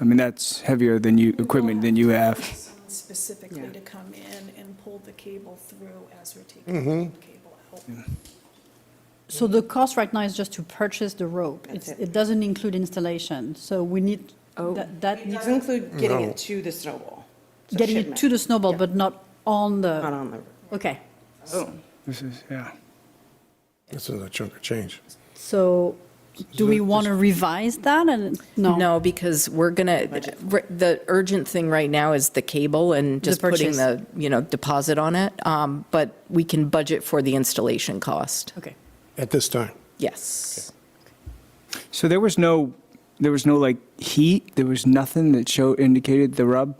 I mean, that's heavier than you, equipment than you have. Someone Specifically to come in and pull the cable through as we're taking the cable out. So the cost right now is just to purchase the rope. That's It's- it. It doesn't include installation, so we need, Oh. that, that It needs- doesn't include getting it to the snowball. It's a getting it to shipment, the snowball, but not on Not the, on the, okay. This is, yeah. This is a chunk of change. So do we want to revise that and, no? No, because we're gonna, we're- the urgent thing right now is the cable and just putting purchase. the, you know, deposit on it. Um, But we can budget for the installation cost. Okay. At this time, Yes. So there was no, there was no like heat, there was nothing that showed, indicated the rub?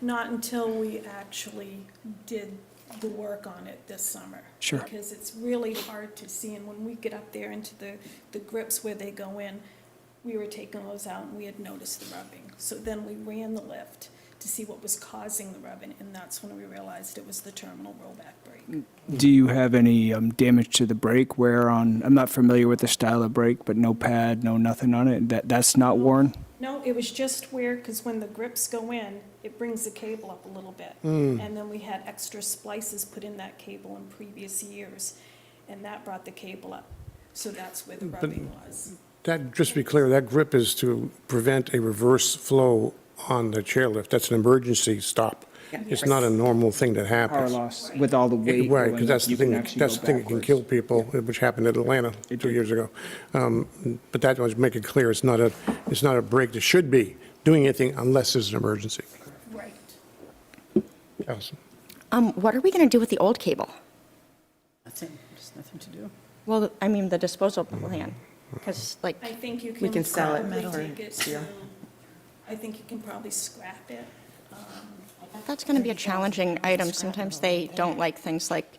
Not until we actually did the work on it this summer. Sure. Because it's really hard to see, and when we get up there into the, the grips where they go in, we were taking those out and we had noticed the rubbing. So then we ran the lift to see what was causing the rubbing, and that's when we realized it was the terminal rollback brake. Do you have any um, damage to the brake wear on, I'm not familiar with the style of brake, but no pad, no nothing on it? That, that's not worn? No, it was just where, because when the grips go in, it brings the cable up a little bit. Hmm. And then we had extra splices put in that cable in previous years, and that brought the cable up. So that's where the rubbing was. that, just to be clear, that grip is to prevent a reverse flow on the chairlift. That's an emergency stop. It's not a normal thing that Power happens. loss with all the weight. Right, going because that's up, the you can thing, actually that's go the thing that can kill backwards. people, which happened at Atlanta It two did. years ago. Um, But that was, make it clear, it's not a, it's not a break that should be doing anything unless there's an emergency. Right. Allison? Um, what are we going to do with the old cable? Nothing, there's nothing to do. Well, I mean, the disposal plan, because like, I think you can. can sell it probably for take it steel. to- I think you can probably scrap it. that's going to be a challenging item. Sometimes they don't like things like,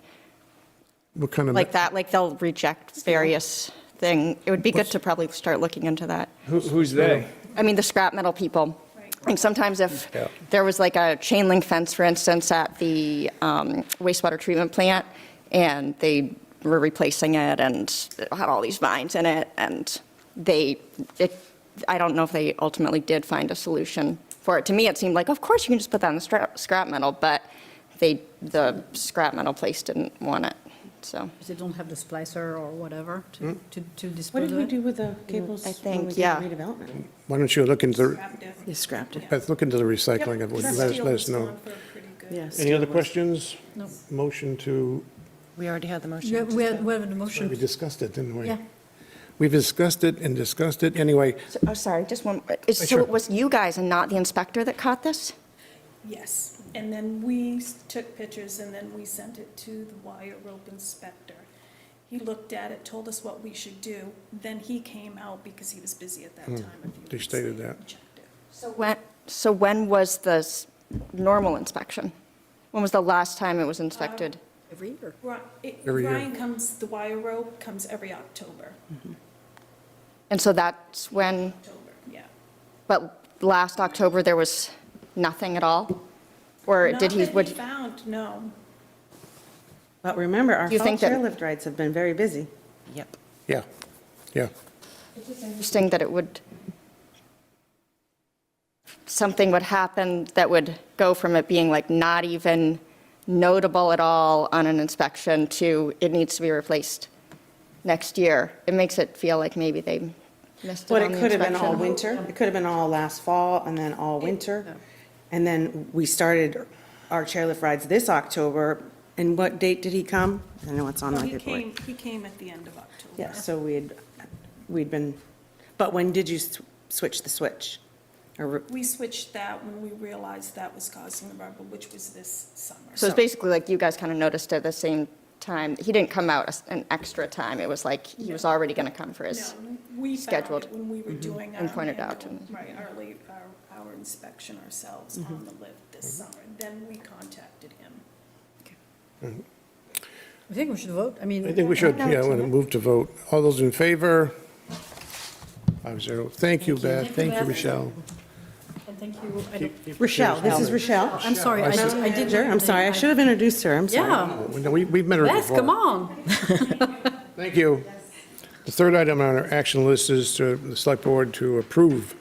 What kind of? like that, like they'll reject various thing. It would be good to probably start looking into that. Who- Who's they? I mean, the scrap metal people. And sometimes if Yeah. there was like a chain link fence, for instance, at the um, wastewater treatment plant, and they were replacing it and it had all these vines in it, and they, it, I don't know if they ultimately did find a solution for it. To me, it seemed like, of course, you can just put that in the scrap, scrap metal, but they, the scrap metal place didn't want it, so. Because they don't have the splicer or whatever to, to to what dispose did of we it. do with the cables? I when think, we did yeah. Redevelopment. Why don't you look into, the- Scrap it. You scrapped it. Beth, look into the recycling of, it. Because let us, steel let was us know. gone for pretty good. Yes. Any other questions? No. Motion to, We already had the motion. Yeah, We have, we have a motion. we discussed it, didn't we? Yeah. We discussed it and discussed it. Anyway, So- Oh, sorry, just one, it's- so Sure. it was you guys and not the inspector that caught this? Yes, and then we s- took pictures and then we sent it to the wire rope inspector. He looked at it, told us what we should do, then he came out because he was busy at that time. a few Hmm. They weeks stated later and that. checked it. So when, so when was the s- normal inspection? When was the last time it was inspected? Every year. Ri- it- Every year. Ryan comes, the wire rope comes every October, And so that's when, October, yeah. but last October, there was nothing at all? Or did Not he, that he would, found, no. But remember, our Do you fall think that- chairlift rides have been very busy. Yep. yeah, yeah. interesting that it would, something would happen that would go from it being like not even notable at all on an inspection to it needs to be replaced next year? It makes it feel like maybe they missed it But on the it could have been all inspection. winter. It could have been all last fall and then all winter. And then we started our chairlift rides this October. And what date did he come? I know it's on my He paperwork. came, he came at the end of October. Yeah, so we had, we'd been, but when did you s- switch the switch? Or We switched that when we realized that was causing the rubber, which was this summer. So it's basically like you guys kind of noticed at the same time, he didn't come out as- an extra time, it was like he was already going to come for his. No, we found scheduled it when we were doing our. and pointed out manual- and- Right, our, late- our- our inspection ourselves on the lift this summer. Then we contacted him. I think we should vote. I mean. I think we should, yeah, I want to move to vote. All those in favor? Five zero. Thank you, Beth. Thank you, Beth. Michelle. And thank you. I don't- Rochelle, this is Rochelle. I'm sorry, I just- I did. Manager, I'm sorry, I should have introduced her, I'm sorry. Yeah, No, we- We've met her Beth, before. come on. Thank you. The third item on our action list is to the select board to approve